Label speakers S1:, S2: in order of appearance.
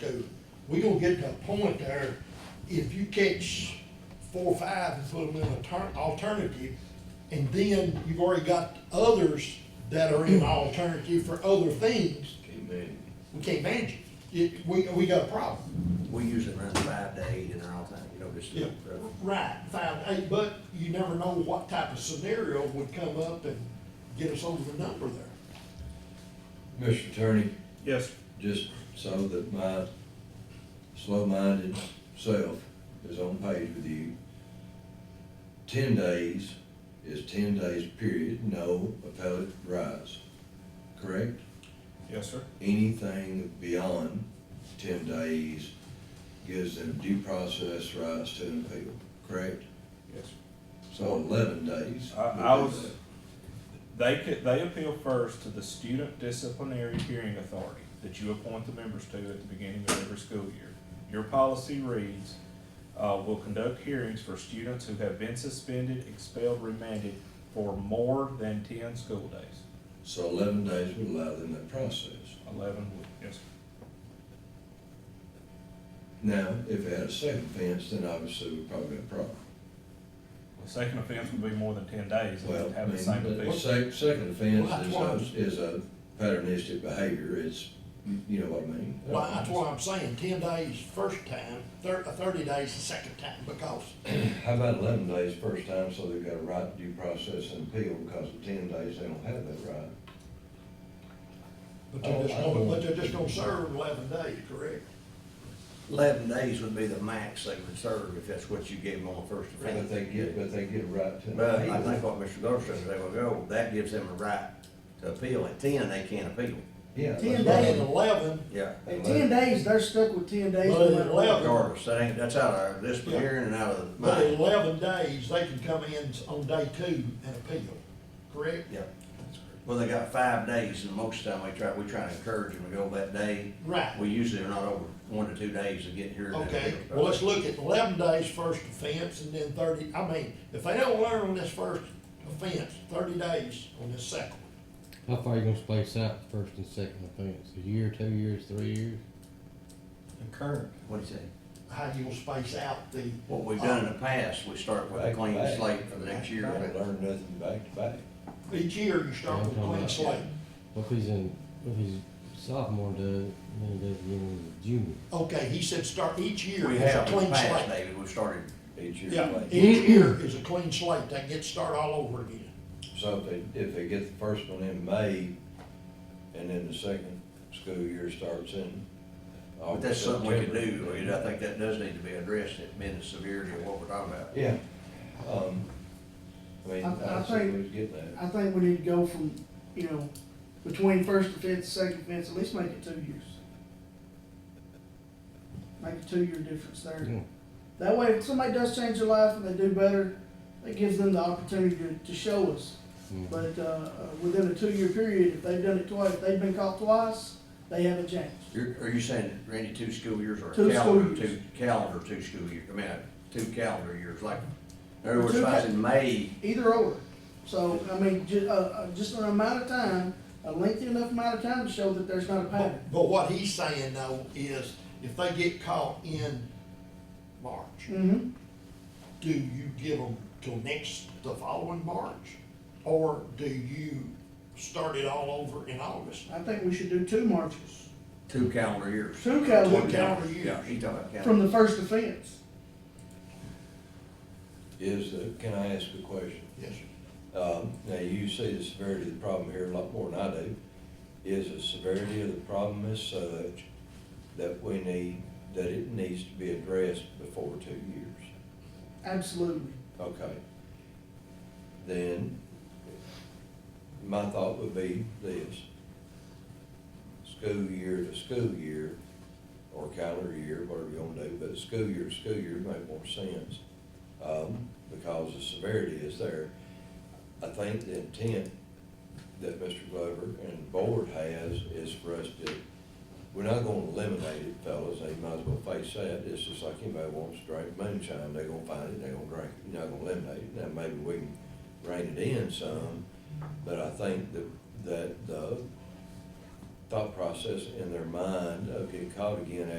S1: So we gonna get to a point there, if you catch four or five and put them in a turn, alternative, and then you've already got others that are in alternative for other things,
S2: Amen.
S1: we can't manage it. It, we, we got a problem.
S3: We usually run five to eight in our all time, you know, just.
S1: Yeah, right, five, eight, but you never know what type of scenario would come up and get us over the number there.
S4: Mr. Attorney,
S2: Yes.
S4: just so that my slow-minded self is on page with you, ten days is ten days period, no appellate rise, correct?
S2: Yes, sir.
S4: Anything beyond ten days gives them due process rights to an appeal, correct?
S2: Yes, sir.
S4: So eleven days.
S2: I-
S4: would
S2: I
S4: do
S2: was-
S4: that.
S2: They could, they appeal first to the student disciplinary hearing authority that you appoint the members to at the beginning of every school year. Your policy reads, uh, will conduct hearings for students who have been suspended, expelled, remanded for more than ten school days.
S4: So eleven days would allow them that process.
S2: Eleven would, yes, sir.
S4: Now, if it had a second offense, then obviously we'd probably have a problem.
S2: The second offense would be more than ten days, and
S4: Well,
S2: they'd
S4: I
S2: have
S4: mean,
S2: the same
S4: the
S2: offense.
S4: sec- second offense
S1: Well,
S4: is a, is a patternistic behavior, it's, you know what I mean?
S1: Well, that's why I'm saying ten days first time, thir- uh, thirty days the second time, because
S4: How about eleven days first time, so they've got a right to due process and appeal, because of ten days, they don't have that right.
S1: But they're just gonna, but they're just gonna serve eleven days, correct?
S3: Eleven days would be the max they would serve if that's what you gave them on the first
S4: But
S3: offense.
S4: they get, but they get a right to. an
S3: But I
S4: appeal.
S3: think what Mr. Gerson said was, oh, that gives them a right to appeal. At ten, they can't appeal.
S4: Yeah. that's
S1: Ten
S4: what I
S1: days,
S4: mean.
S1: eleven,
S3: Yeah.
S5: In ten days, they're stuck with ten days.
S1: Well,
S5: no matter what.
S1: eleven.
S3: Regardless, that ain't, that's out of this
S1: Yeah.
S3: hearing and out of
S1: but
S3: mine.
S1: eleven days, they can come in on day two and appeal, correct?
S3: Yeah. Well, they got five days and most of the time we try, we try to encourage them to go that day.
S1: Right,
S3: We usually are not over one to two days to get here. and then-
S1: okay, well, let's look at eleven days first offense and then thirty, I mean, if they don't learn on this first offense, thirty days on this second. one.
S6: How far you gonna space out the first and second offense? A year, two years, three years?
S5: Current.
S3: What'd you say?
S1: How you gonna space out the,
S3: What we've done in the past, we start with a
S4: Back to
S3: clean
S4: back.
S3: slate for the next year.
S4: They don't learn nothing back to back.
S1: each year you start with a clean slate,
S6: What if he's in, what if he's sophomore does, and then he does again as a junior?
S1: okay, he said start each year
S3: We
S1: is a
S3: have in the
S1: clean
S3: past,
S1: slate.
S3: David, we started,
S4: Each year.
S1: Yeah,
S4: like-
S1: each year is a clean slate, they get to start all over again.
S4: So if they, if they get the first one in May, and then the second school year starts in.
S3: but that's something we could do.
S4: September.
S3: And I think that does need to be addressed, it being the severity of what we're talking about.
S4: Yeah, um, I mean,
S5: I- I
S4: I see
S5: think-
S4: who's getting that.
S5: I think we need to go from, you know, between first offense, second offense, at least make it two years. Make a two-year difference there.
S6: Yeah.
S5: That way, if somebody does change their life and they do better, that gives them the opportunity to, to show us.
S6: Mm.
S5: But, uh, uh, within a two-year period, if they've done it twice, if they've been caught twice, they haven't changed.
S3: You're, are you saying, Randy, two school years or
S5: Two
S3: a
S5: school
S3: calendar,
S5: years.
S3: two calendar, two school years? I mean, uh, two calendar years, like, in other
S5: Or
S3: words,
S5: two
S3: if I was
S5: ca-
S3: in May,
S5: Either or. So, I mean, ju- uh, uh, just an amount of time, a lengthy enough amount of time to show that there's not a pattern.
S1: But, but what he's saying though is, if they get caught in March,
S5: Mm-hmm.
S1: do you give them till next, the following March? Or do you start it all over in August?
S5: I think we should do two marches,
S3: two calendar years.
S5: two
S1: Two
S5: calendar,
S1: calendar
S3: Yeah,
S1: years.
S3: he talking about calendar.
S5: from the first offense.
S4: Is that, can I ask a question?
S1: Yes, sir.
S4: Um, now, you see the severity of the problem here a lot more than I do. Is the severity of the problem is such that we need, that it needs to be addressed before two years?
S5: Absolutely.
S4: Okay. Then, my thought would be this. School year to school year, or calendar year, whatever you wanna do, but school year to school year make more sense, um, because the severity is there. I think the intent that Mr. Glover and the board has is for us to, we're not gonna eliminate it, fellas, they might as well face that, it's just like anybody wants to drink moonshine, they are gonna find it, they are gonna drink it, you're not gonna eliminate it, now maybe we can rein it in some, but I think that, that the thought process in their mind of getting caught again